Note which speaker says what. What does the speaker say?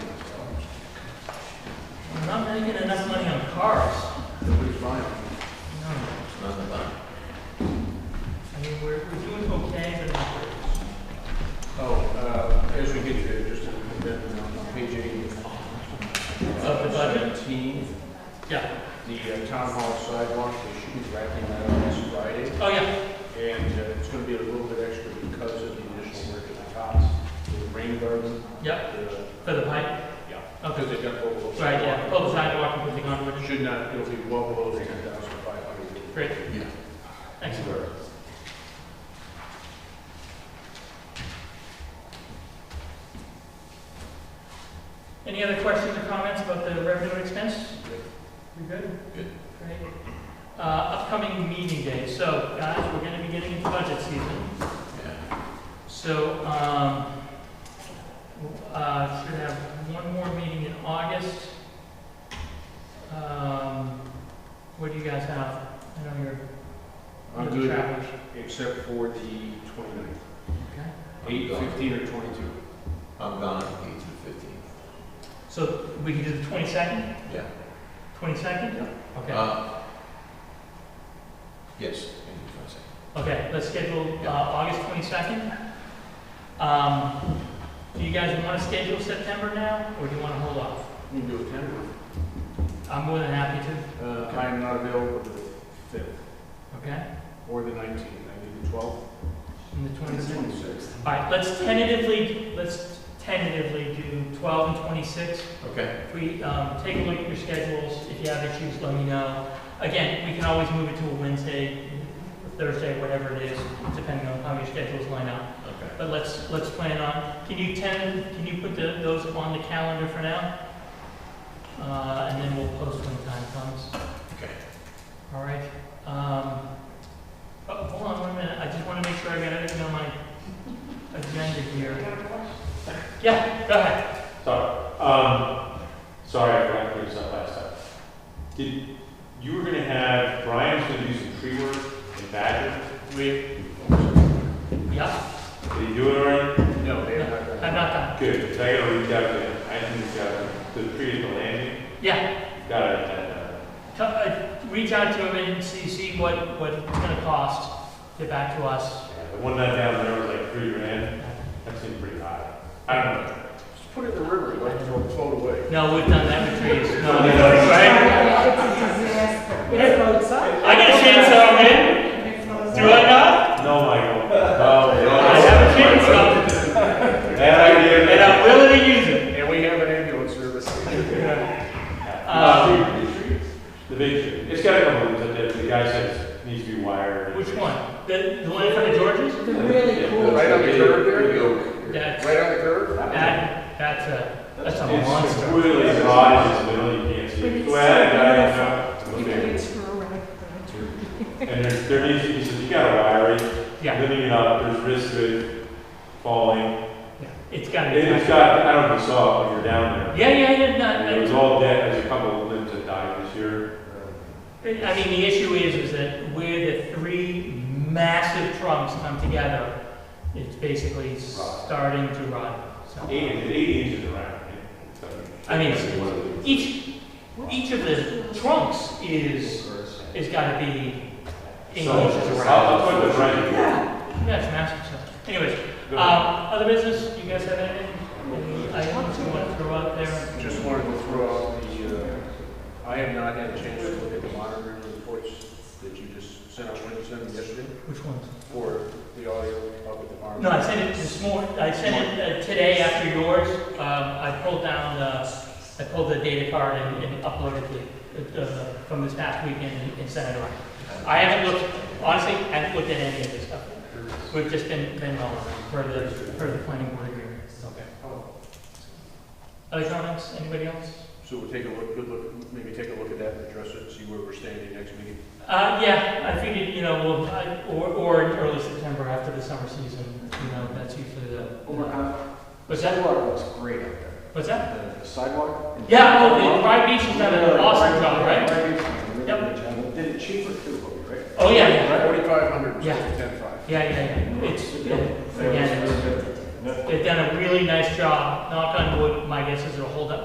Speaker 1: making enough money on cars.
Speaker 2: Nobody's buying them.
Speaker 1: No, I mean, we're, we're doing okay, but not great.
Speaker 2: Oh, uh, as we get there, just a bit, on page eight.
Speaker 1: Of the budget?
Speaker 2: Seventeen,
Speaker 1: Yeah,
Speaker 2: the uh, town hall sidewalk, they should be wrapping that up this Friday.
Speaker 1: oh, yeah,
Speaker 2: And uh, it's gonna be a little bit extra because of the additional work at the tops, the rain garden.
Speaker 1: yeah,
Speaker 2: the-
Speaker 1: for the pipe,
Speaker 2: Yeah,
Speaker 1: Okay.
Speaker 2: because they got both. of those.
Speaker 1: right, yeah, pull the sidewalk and put the conduit,
Speaker 2: Should not, it'll be well below the ten thousand five hundred.
Speaker 1: great. Excellent. Any other questions or comments about the revenue and expense? We good?
Speaker 3: Good.
Speaker 1: Great. Uh, upcoming meeting day, so guys, we're gonna be getting into budget season.
Speaker 3: Yeah.
Speaker 1: So, um, uh, should have one more meeting in August. Um, what do you guys have? I know you're,
Speaker 2: I'm
Speaker 1: you're the
Speaker 2: good,
Speaker 1: travelers.
Speaker 2: except for the twenty-ninth,
Speaker 1: Okay.
Speaker 2: eight, fifteen, or twenty-two.
Speaker 3: I'm gone eight to fifteen.
Speaker 1: So we can do the twenty-second,
Speaker 3: Yeah.
Speaker 1: twenty-second? Okay,
Speaker 3: Uh, Yes, I can try to say.
Speaker 1: okay, let's schedule, uh,
Speaker 3: Yeah.
Speaker 1: August twenty-second. Um, do you guys wanna schedule September now, or do you wanna hold off?
Speaker 2: You can do a ten.
Speaker 1: I'm more than happy to,
Speaker 2: Uh, I am not available the fifth
Speaker 1: okay,
Speaker 2: or the nineteenth, I need the twelfth.
Speaker 1: and the twenty-second.
Speaker 2: Twenty-sixth.
Speaker 1: All right, let's tentatively, let's tentatively do 12 and 26.
Speaker 3: Okay,
Speaker 1: If we um, take a look at your schedules, if you have issues, let me know. Again, we can always move it to a Wednesday, Thursday, whatever it is, depending on how your schedules line up.
Speaker 3: okay.
Speaker 1: But let's, let's plan on, can you ten, can you put the- those on the calendar for now? Uh, And then we'll post when the time comes.
Speaker 3: Okay.
Speaker 1: All right. um, Oh, hold on one minute, I just want to make sure I got everything on my agenda here. Yeah, go ahead.
Speaker 4: Sorry, um, sorry, I forgot to bring this up last time. Did, you were gonna have, Brian's gonna do some tree work in Badger, wait,
Speaker 1: Yeah,
Speaker 4: did he do it already?
Speaker 2: No, they have not.
Speaker 1: I'm
Speaker 2: done that.
Speaker 1: not done.
Speaker 4: Good, 'cause I gotta reach out to him, I can reach out to him, the tree at the landing,
Speaker 1: Yeah,
Speaker 4: gotta, uh,
Speaker 1: t- uh, reach out to him and see, see what, what it's gonna cost, get back to us.
Speaker 4: the one that down there was like three grand, that seemed pretty high. I don't know.
Speaker 2: Just put it in the river, like it'll float away.
Speaker 1: No, we've done that with trees. No,
Speaker 4: No, no, no.
Speaker 1: right? I get a chainsaw, man, do I not?
Speaker 4: No, Michael, no, no.
Speaker 1: I have a chainsaw,
Speaker 4: Bad idea, Um,
Speaker 1: and I'm willing to use it.
Speaker 2: And we have an ambulance service.
Speaker 4: Uh,
Speaker 1: Um,
Speaker 4: The big tree, it's gotta come over, the, the guy says, it needs to be wired.
Speaker 1: Which one? The, the one in front of George's?
Speaker 5: The really cool,
Speaker 2: Right on the curb there?
Speaker 1: That's,
Speaker 2: Right on the curb?
Speaker 1: that, that's uh, a, that's a
Speaker 4: It's
Speaker 1: monster.
Speaker 4: really broad, it's middle, you can't see.
Speaker 5: But it's
Speaker 4: Go ahead,
Speaker 5: so
Speaker 4: I
Speaker 5: you
Speaker 4: don't know.
Speaker 5: can
Speaker 4: Okay.
Speaker 5: reach for right there.
Speaker 4: And there's, there needs to be, says, you gotta wire it,
Speaker 1: Yeah,
Speaker 4: living it up, there's risk of it falling.
Speaker 1: yeah, it's gotta
Speaker 4: And
Speaker 1: be.
Speaker 4: it's got, I don't know if you saw it when you were down there.
Speaker 1: Yeah, yeah, yeah,
Speaker 4: It was
Speaker 1: no,
Speaker 4: all dead, there's a couple of limbs that died this year.
Speaker 1: I, I mean, the issue is, is that where the three massive trunks come together, it's basically starting to rot, so.
Speaker 4: Eight, inches- eight inches around. yeah. So-
Speaker 1: I mean, it's- Each, each of the trunks is, is gotta be eight
Speaker 4: So,
Speaker 1: inches
Speaker 4: I'll,
Speaker 1: around.
Speaker 4: I'll put the right.
Speaker 1: Yeah, it's massive, so, anyways,
Speaker 4: Go
Speaker 1: um,
Speaker 4: ahead.
Speaker 1: other business, you guys have anything? Any items you wanna throw out there?
Speaker 2: Just wanted to throw out the, uh, I have not had a chance to look at the monitoring reports that you just sent out, when you sent them yesterday,
Speaker 1: Which ones?
Speaker 2: for the audio up at the farm.
Speaker 1: No, I sent it this morning, I sent it uh, today after yours. Um, I pulled down the, I pulled the data card and and uploaded it uh, from this past weekend and- and sent it around. I haven't looked, honestly, I haven't looked at any of this stuff. We've just been, been rolling for the, for the planning board agreement.
Speaker 2: Okay.
Speaker 1: Other comments, anybody else?
Speaker 2: So we'll take a look, good look, maybe take a look at that and address it, see where we're standing next meeting.
Speaker 1: Uh, yeah, I figured, you know, we'll, I- or, or in early September after the summer season, you know, that's usually the. What's that?
Speaker 2: looks great out there.
Speaker 1: What's that?
Speaker 2: Uh, The sidewalk?
Speaker 1: Yeah, oh, the Pride Beach has done an awesome job, right?
Speaker 2: Yep. Did it cheaper too, right?
Speaker 1: Oh, yeah, yeah,
Speaker 2: Forty-five hundred
Speaker 1: Yeah.
Speaker 2: instead of ten-five.
Speaker 1: yeah, yeah, yeah. It's, yeah, again, it's- they've done a really nice job, knock on wood, my guess is it'll hold up